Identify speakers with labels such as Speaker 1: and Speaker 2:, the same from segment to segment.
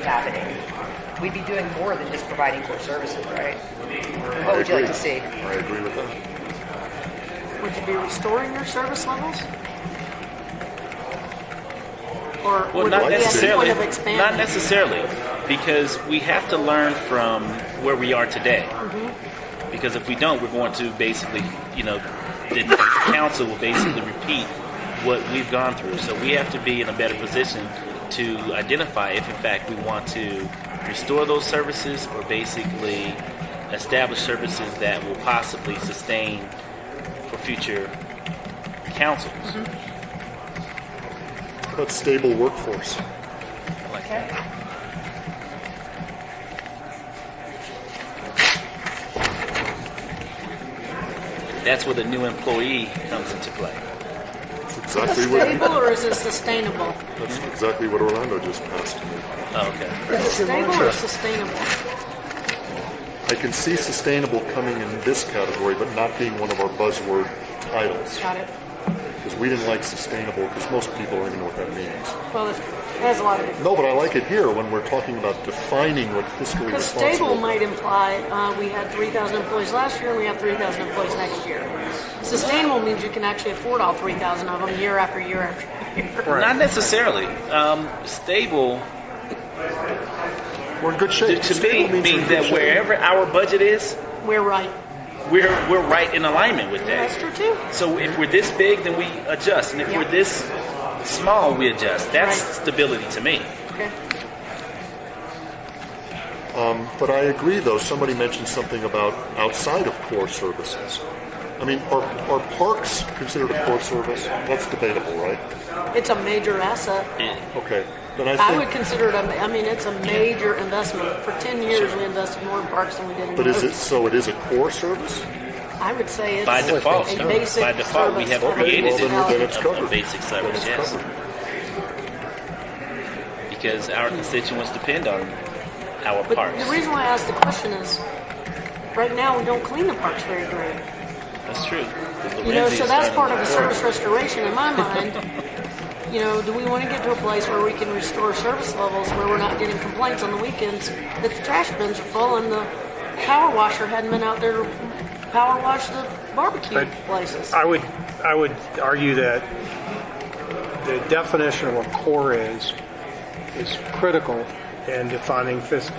Speaker 1: happening. We'd be doing more than just providing core services, right? What would you like to see?
Speaker 2: I agree with that.
Speaker 3: Would you be restoring your service levels? Or
Speaker 4: Well,
Speaker 3: would
Speaker 4: not
Speaker 3: it be at the
Speaker 4: necessarily.
Speaker 3: point of
Speaker 4: Not
Speaker 3: expanding?
Speaker 4: necessarily, because we have to learn from where we are today. Because if we don't, we're going to basically, you know, the council will basically repeat what we've gone through. So we have to be in a better position to identify if, in fact, we want to restore those services or basically establish services that will possibly sustain for future councils.
Speaker 2: That's stable workforce.
Speaker 4: Like
Speaker 1: Okay.
Speaker 4: That's where the new employee comes into play.
Speaker 2: That's
Speaker 3: Is
Speaker 2: exactly
Speaker 3: it
Speaker 2: what,
Speaker 3: stable or is it sustainable?
Speaker 2: that's exactly what Orlando just passed to me.
Speaker 4: Oh, okay.
Speaker 3: Is it stable or sustainable?
Speaker 2: I can see sustainable coming in this category, but not being one of our buzzword titles.
Speaker 3: Got it.
Speaker 2: Because we didn't like sustainable, because most people don't even know what that means.
Speaker 3: Well, it has a lot of different.
Speaker 2: No, but I like it here when we're talking about defining what fiscally
Speaker 3: Because
Speaker 2: responsible.
Speaker 3: stable might imply uh, we had 3,000 employees last year and we have 3,000 employees next year. Sustainable means you can actually afford all 3,000 of them year after year after year.
Speaker 4: Not necessarily. Um, stable
Speaker 2: We're in good
Speaker 4: to,
Speaker 2: shape.
Speaker 4: to
Speaker 2: Stable means
Speaker 4: me
Speaker 2: we're in
Speaker 4: means
Speaker 2: good
Speaker 4: that
Speaker 2: shape.
Speaker 4: wherever our budget is,
Speaker 3: We're right.
Speaker 4: we're we're right in alignment with
Speaker 3: That's
Speaker 4: that.
Speaker 3: true too.
Speaker 4: So if we're this big, then we adjust, and if we're
Speaker 3: Yeah.
Speaker 4: this small, we adjust. That's
Speaker 3: Right.
Speaker 4: stability to me.
Speaker 3: Okay.
Speaker 2: But I agree, though. Somebody mentioned something about outside of core services. I mean, are, are parks considered a core service? That's debatable, right?
Speaker 3: It's a major asset.
Speaker 2: Okay. Then I think.
Speaker 3: I would consider it, a, I mean, it's a major investment. For 10 years, we invested more in parks than we did in
Speaker 2: but is it
Speaker 3: roads.
Speaker 2: so? It is a core service.
Speaker 3: I would say it's
Speaker 4: By default,
Speaker 3: a basic
Speaker 4: by default, we
Speaker 3: service
Speaker 4: have
Speaker 3: for
Speaker 4: created
Speaker 2: well,
Speaker 4: it
Speaker 2: then we're- then
Speaker 3: municipality.
Speaker 2: it's
Speaker 4: a-
Speaker 2: covered.
Speaker 4: a basic
Speaker 2: Then
Speaker 4: service,
Speaker 2: it's
Speaker 4: yes,
Speaker 2: covered.
Speaker 4: because our constituents depend on our
Speaker 3: But
Speaker 4: parks.
Speaker 3: the reason why I asked the question is, right now, we don't clean the parks very great.
Speaker 4: That's true. 'Cause
Speaker 3: You know,
Speaker 4: Lorenzi
Speaker 3: so
Speaker 4: is
Speaker 3: that's
Speaker 4: starting
Speaker 3: part of
Speaker 4: to
Speaker 3: a
Speaker 4: work.
Speaker 3: service restoration in my mind. You know, do we want to get to a place where we can restore service levels where we're not getting complaints on the weekends that the trash bins are full and the power washer hadn't been out there to power wash the barbecue
Speaker 5: But
Speaker 3: places?
Speaker 5: I would, I would argue that the definition of what core is, is critical in defining fis-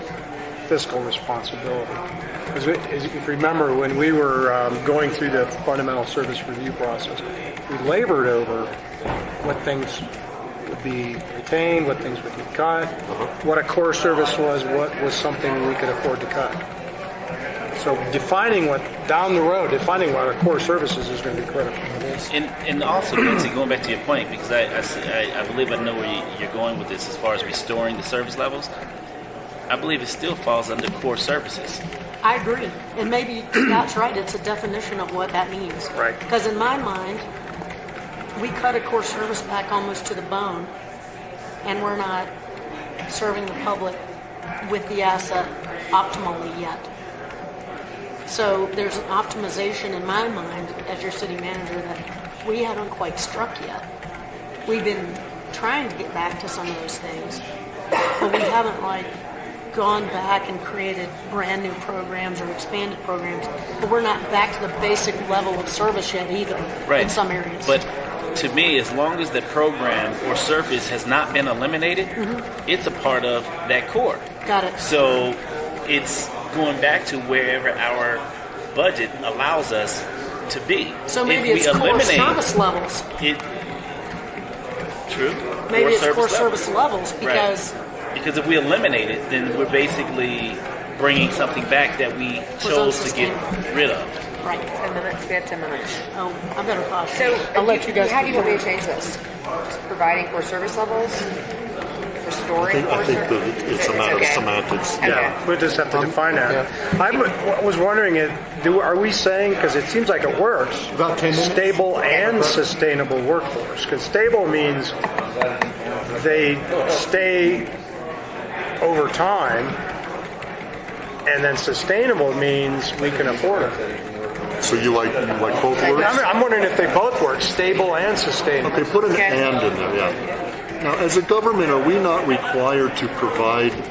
Speaker 5: fiscal responsibility. Because if you remember, when we were um, going through the fundamental service review process, we labored over what things would be retained, what things would be cut, what a core service was, what was something we could afford to cut. So defining what, down the road, defining what our core services is going to be critical.
Speaker 4: And, and also, Betsy, going back to your point, because I, I see- I, I believe I know where you, you're going with this as far as restoring the service levels. I believe it still falls under core services.
Speaker 3: I agree. And maybe Scott's right, it's a definition of what that means.
Speaker 5: Right.
Speaker 3: Because in my mind, we cut a core service back almost to the bone, and we're not serving the public with the asset optimally yet. So there's an optimization in my mind as your city manager that we haven't quite struck yet. We've been trying to get back to some of those things, but we haven't like gone back and created brand new programs or expanded programs. But we're not back to the basic level of service yet either
Speaker 4: Right.
Speaker 3: in some areas.
Speaker 4: But to me, as long as the program or service has not been eliminated,
Speaker 3: Mm-hmm.
Speaker 4: it's a part of that core.
Speaker 3: Got it.
Speaker 4: So it's going back to wherever our budget allows us to be.
Speaker 3: So maybe
Speaker 4: if we
Speaker 3: it's core
Speaker 4: eliminate
Speaker 3: service levels.
Speaker 4: it, true.
Speaker 3: Maybe it's core
Speaker 4: levels.
Speaker 3: service levels because
Speaker 4: Right. Because if we eliminate it, then we're basically bringing something back that we chose to get rid of.
Speaker 3: right.
Speaker 1: Ten minutes, we have ten minutes.
Speaker 3: Oh, I better pause.
Speaker 1: So
Speaker 3: I'll let you guys.
Speaker 1: How do you
Speaker 3: keep
Speaker 1: want me
Speaker 3: going.
Speaker 1: to change this? Providing core service levels,
Speaker 2: I
Speaker 1: restoring
Speaker 2: think,
Speaker 1: core
Speaker 2: I think
Speaker 1: service.
Speaker 2: that it- it's a matter of semantics.
Speaker 5: Yeah, we'll just have
Speaker 2: Um,
Speaker 5: to define that. I was wondering, it- do, are we saying, because it seems like it works,
Speaker 2: About 10 minutes?
Speaker 5: stable and sustainable workforce? Because stable means they stay over time, and then sustainable means we can afford it.
Speaker 2: So you like you like both words?
Speaker 5: I'm, I'm wondering if they both work, stable and sustainable.
Speaker 2: Okay, put an
Speaker 1: Okay.
Speaker 2: and in there. Yeah. Now, as a government, are we not required to provide